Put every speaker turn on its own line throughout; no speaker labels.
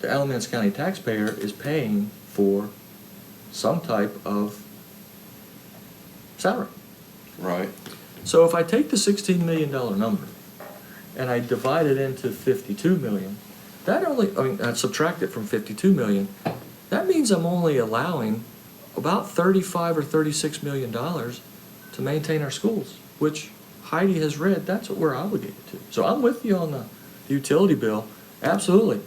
the Alamance County taxpayer is paying for some type of salary.
Right.
So if I take the sixteen million dollar number and I divide it into fifty-two million, that only, I mean, I subtract it from fifty-two million, that means I'm only allowing about thirty-five or thirty-six million dollars to maintain our schools, which Heidi has read, that's what we're obligated to. So I'm with you on the utility bill, absolutely.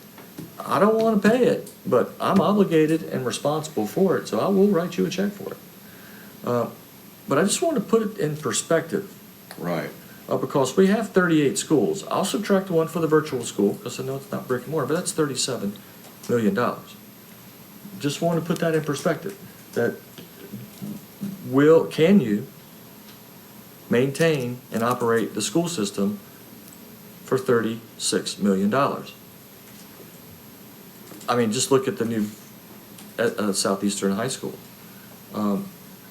I don't wanna pay it, but I'm obligated and responsible for it, so I will write you a check for it. Uh, But I just want to put it in perspective,
Right.
uh, because we have thirty-eight schools. I'll subtract one for the virtual school, because I know it's not brick and mortar, but that's thirty-seven million dollars. Just want to put that in perspective, that will, can you maintain and operate the school system for thirty-six million dollars? I mean, just look at the new, at, uh, Southeastern High School. Um,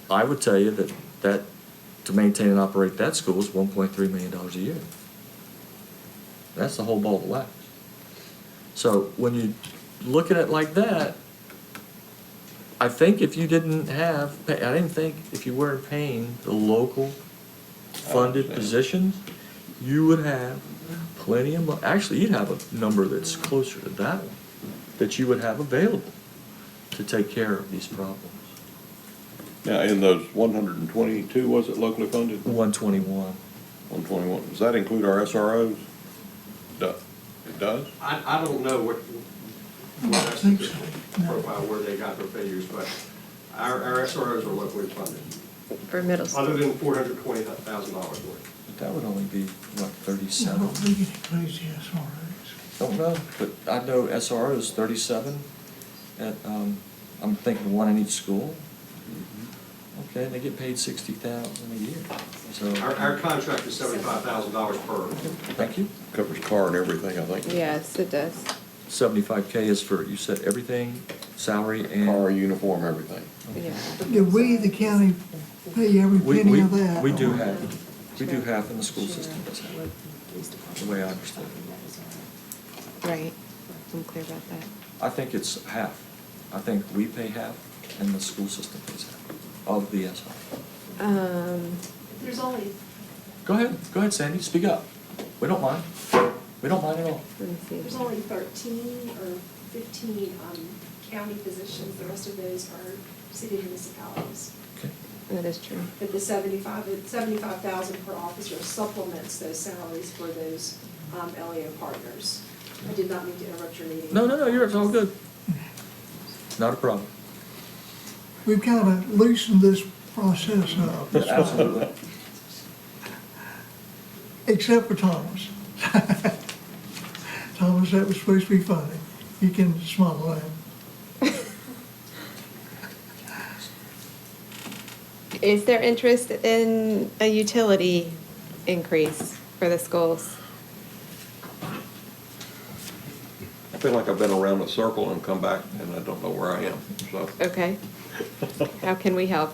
I would tell you that, that, to maintain and operate that school is one point three million dollars a year. That's the whole ball of wax. So when you look at it like that, I think if you didn't have, I didn't think if you weren't paying the local funded
Understand.
positions, you would have plenty of mo- actually, you'd have a number that's closer to that one, that you would have available to take care of these problems.
Now, in those one hundred and twenty-two, was it locally funded?
One twenty-one.
One twenty-one, does that include our SROs? Do- It does?
I, I don't know what, what that's the profile, where they got their figures, but our, our SROs are locally funded,
For middle
other
school.
than four hundred twenty thousand dollars worth.
But that would only be, what,
I
thirty-seven?
don't think it includes the SROs.
Don't know, but I know SRO is thirty-seven at, um, I'm thinking one in each school. Okay, and they get paid sixty thousand a year, so.
Our, our contract is seventy-five thousand dollars per.
Thank you.
Covers car and everything, I think.
Yes, it does.
Seventy-five K is for, you said everything, salary
Car,
and.
uniform, everything.
Yeah.
Do we, the county, pay every
We,
penny
we,
of that?
we do
or-
have, we do have, and the school system does have. The way I understand
Right. I'm clear about that.
I think it's half. I think we pay half and the school system pays half of the SRO.
Um,
There's only,
Go ahead, go ahead, Sandy, speak up. We don't mind. We don't mind at all.
let me
there's
see.
only thirteen or fifteen um, county positions, the rest of those are city municipalities.
Okay.
That is true.
But the seventy-five, seventy-five thousand per officer supplements those salaries for those um, LEO partners. I did not mean to interrupt your meeting.
No, no, no, you're, it's all good. Not a problem.
We've kind of loosened this process up,
Absolutely.
except for Thomas. Thomas, that was supposed to be funny. You can smile at him.
Is there interest in a utility increase for the schools?
I feel like I've been around a circle and come back and I don't know where I am, so.
Okay. How can we help?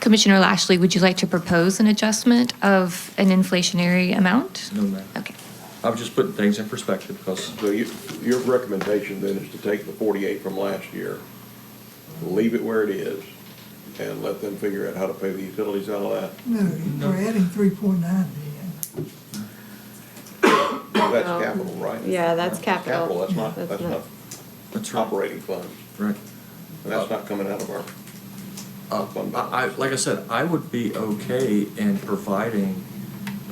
Commissioner Lashley, would you like to propose an adjustment of an inflationary amount?
No, ma'am.
Okay.
I was just putting things in perspective because,
So you, your recommendation then is to take the forty-eight from last year, leave it where it is, and let them figure out how to pay the utilities out of
No, we're adding three point nine million.
that.
Um,
That's capital, right?
Yeah, that's capital.
Capital, that's not,
That's
that's
not-
not
that's right.
operating funds.
Right.
And that's not coming out of our
Uh, I, I- like I said, I would be okay in providing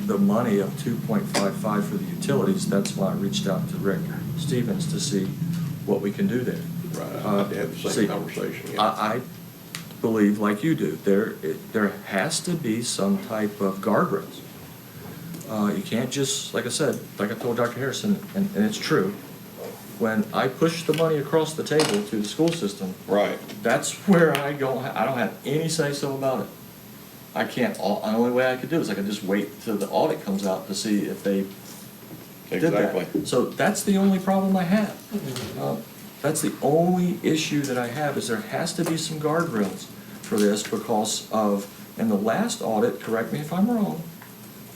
the money of two point five five for the utilities. That's why I reached out to Rick Stevens to see what we can do there.
Right,
Uh,
I had the
see,
same conversation, yeah.
I, I believe, like you do, there, it- there has to be some type of guardrails. Uh, you can't just, like I said, like I told Dr. Harrison, and, and it's true, when I push the money across the table to the school system,
Right,
that's where I go, I don't have any say-so about it. I can't, all, the only way I could do is I could just wait till the audit comes out to see if they did that.
exactly.
So that's the only problem I have. Uh, That's the only issue that I have, is there has to be some guardrails for this because of, in the last audit, correct me if I'm wrong,